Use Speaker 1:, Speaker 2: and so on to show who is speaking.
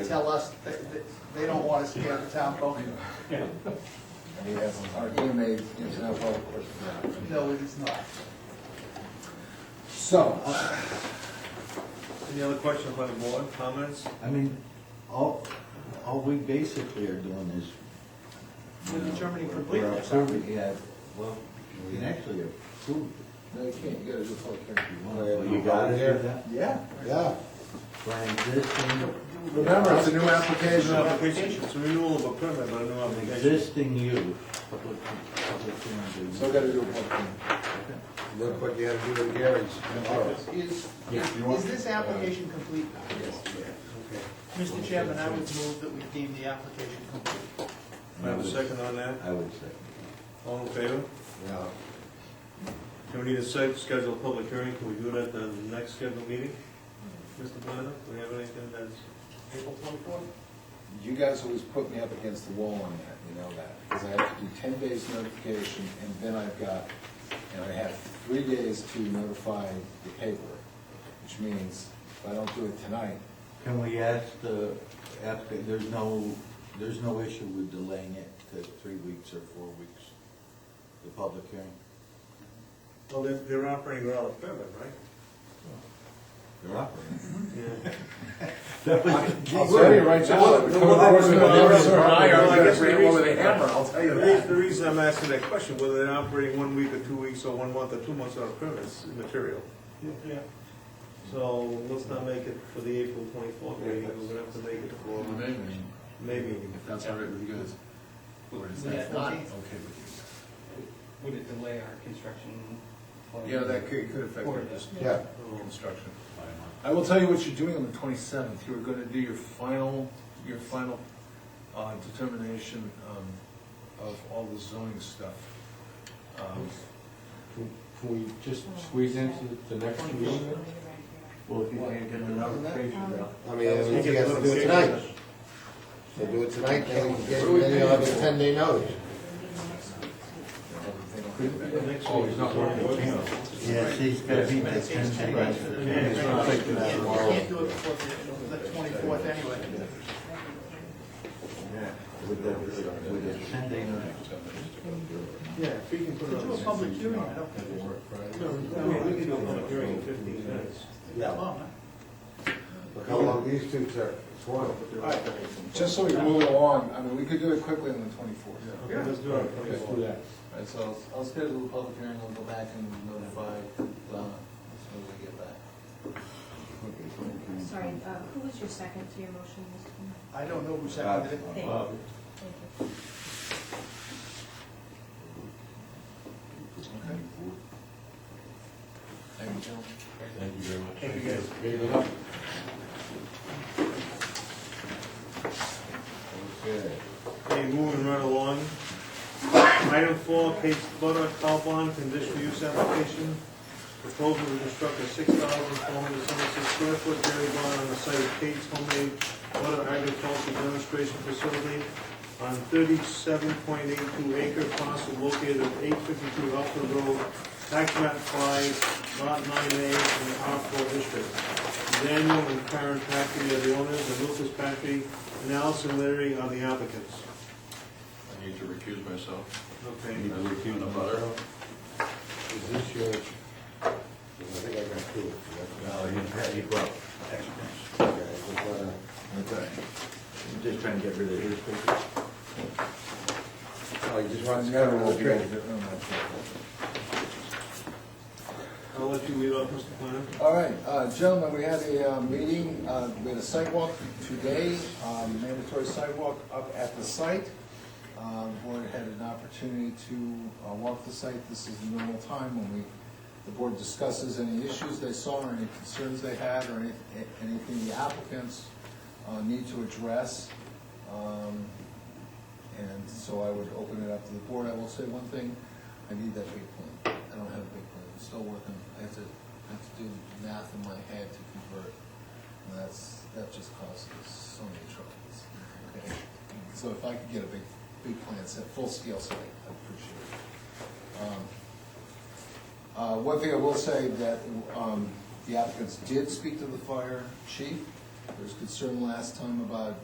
Speaker 1: tell us that, that they don't want us to get the town vote.
Speaker 2: I mean, that's our inmates, it's not well, of course.
Speaker 1: No, it is not.
Speaker 2: So,
Speaker 3: Any other questions by the board, comments?
Speaker 4: I mean, all, all we basically are doing is. you
Speaker 1: We're
Speaker 4: know,
Speaker 1: determining
Speaker 4: we're-
Speaker 1: completeness,
Speaker 4: we're
Speaker 1: aren't we?
Speaker 4: approving- Yeah, well, you can actually approve.
Speaker 2: no, you can't, you gotta do a public
Speaker 4: Well,
Speaker 2: hearing.
Speaker 4: you gotta do that.
Speaker 2: Yeah, yeah.
Speaker 4: By existing,
Speaker 2: Remember, it's a new
Speaker 3: It's
Speaker 2: application.
Speaker 3: an application, it's a renewal of a permit, but a new
Speaker 4: an
Speaker 3: application.
Speaker 4: existing use. public- public hearing.
Speaker 2: So we gotta do a public hearing.
Speaker 5: Look what you had to do with Gary's tomorrow.
Speaker 1: Is,
Speaker 4: Yeah,
Speaker 5: you want-
Speaker 1: is this application complete now? Mr. Chairman, I would move that we deem the application complete.
Speaker 3: May I have a second on that?
Speaker 4: I would say.
Speaker 3: All in favor?
Speaker 5: Yeah.
Speaker 3: Can we need a site schedule a public hearing? Can we do it at the next scheduled meeting? Mr. Planner, do we have anything that's April twenty-fourth?
Speaker 2: You guys always put me up against the wall on that, you know that, because I have to do ten days notification, and then I've got, and I have three days to notify the paper, which means if I don't do it tonight,
Speaker 4: Can we ask the applicant, there's no, there's no issue with delaying it to three weeks or four weeks, the public hearing?
Speaker 3: Well, they're, they're operating without a permit, right?
Speaker 4: They're operating.
Speaker 3: Yeah.
Speaker 4: That was-
Speaker 2: I'll tell you right now. it would come across my nerves or I
Speaker 3: Well,
Speaker 2: am
Speaker 3: I
Speaker 2: gonna
Speaker 3: guess
Speaker 2: bring
Speaker 3: the
Speaker 2: it with a
Speaker 3: reason-
Speaker 2: hammer, I'll tell you
Speaker 3: The reason, the
Speaker 2: that.
Speaker 3: reason I'm asking that question, whether they're operating one week or two weeks or one month or two months on a permit is immaterial. Yeah. So let's not make it for the April twenty-fourth meeting, we're gonna have to make it for May meeting.
Speaker 6: If that's all right with you guys, or is
Speaker 1: Yeah,
Speaker 6: that not okay
Speaker 1: okay.
Speaker 6: with
Speaker 7: Would it delay our construction? plan?
Speaker 6: you guys? Yeah, that could, could affect
Speaker 7: Or
Speaker 6: your
Speaker 7: this.
Speaker 2: Yeah.
Speaker 3: um,
Speaker 6: construction by a month.
Speaker 5: I will tell you what you're doing on the twenty-seventh, you're gonna do your final, your final, uh, determination, um, of all the zoning stuff. Um,
Speaker 4: Can we just squeeze into the next meeting?
Speaker 8: Um,
Speaker 4: Well, if you can't get an application out.
Speaker 9: I mean, as we
Speaker 3: Yeah,
Speaker 9: guys can do it tonight. They do it tonight, then we can get, then you'll have a ten day notice.
Speaker 3: Oh, he's not working.
Speaker 4: Yes, he's got to be back ten
Speaker 1: You
Speaker 4: days.
Speaker 1: can't do it before the- the twenty-fourth anyway.
Speaker 4: With the, with the ten day notice.
Speaker 3: Yeah, if you can put it
Speaker 1: To
Speaker 3: on.
Speaker 1: do a public hearing, I don't think it's
Speaker 3: No, we can do a public hearing in fifteen minutes.
Speaker 1: that long, huh?
Speaker 9: Look how long these two took, it's one.
Speaker 3: All right,
Speaker 2: Just so we move along, I mean, we could do it quickly on the twenty-fourth.
Speaker 3: okay, let's do it. on the 24th.
Speaker 2: Alright, so I'll- I'll schedule a public hearing, I'll go back and notify Donna as soon as I get back.
Speaker 8: Sorry, uh, who was your second to your motion, Mr. Chairman?
Speaker 1: I don't know who seconded it.
Speaker 8: Thank you. Thank you.
Speaker 2: Thank you, gentlemen.
Speaker 6: Thank you very much.
Speaker 3: Thank you, guys.
Speaker 4: Okay.
Speaker 3: Okay, moving right along. Item four, Case Butter, Calpon, conditional use application. Proposal to construct a six thousand four hundred seventy-six square foot dairy barn on the site of Kate's Homemade Butter Agricultural Demonstration Facility on thirty-seven point eight two acre parcel located at eight fifty-two Upland Road, tax map five, lot nine A, in the R four district. Daniel and Karen Packey are the owners, and Lucas Packey and Allison Larry are the applicants.
Speaker 6: I need to recuse myself.
Speaker 3: Okay.
Speaker 6: Need to recuse. On the butter.
Speaker 9: Is this your, I think I got two.
Speaker 4: Well, you, you brought extras.
Speaker 9: Okay, just wanna-
Speaker 4: Okay. I'm just trying to get rid of his papers.
Speaker 9: Oh, you just want to know real quick.
Speaker 5: Oh,
Speaker 3: I'll let you lead off, Mr. Planner.
Speaker 2: All right, uh, gentlemen, we had a uh, meeting, uh, we had a sidewalk today, um, mandatory sidewalk up at the site. Um, Board had an opportunity to uh, walk the site, this is the normal time when we, the board discusses any issues they saw, or any concerns they had, or any- anything the applicants uh, need to address. Um, And so I would open it up to the board. I will say one thing, I need that big plan. I don't have a big plan, I'm still working, I have to, I have to do math in my head to convert. And that's, that just causes so many troubles. Okay. So if I could get a big, big plan set, full-scale site, I'd appreciate it. Um, uh, One thing I will say that um, the applicants did speak to the fire chief. There was concern last time about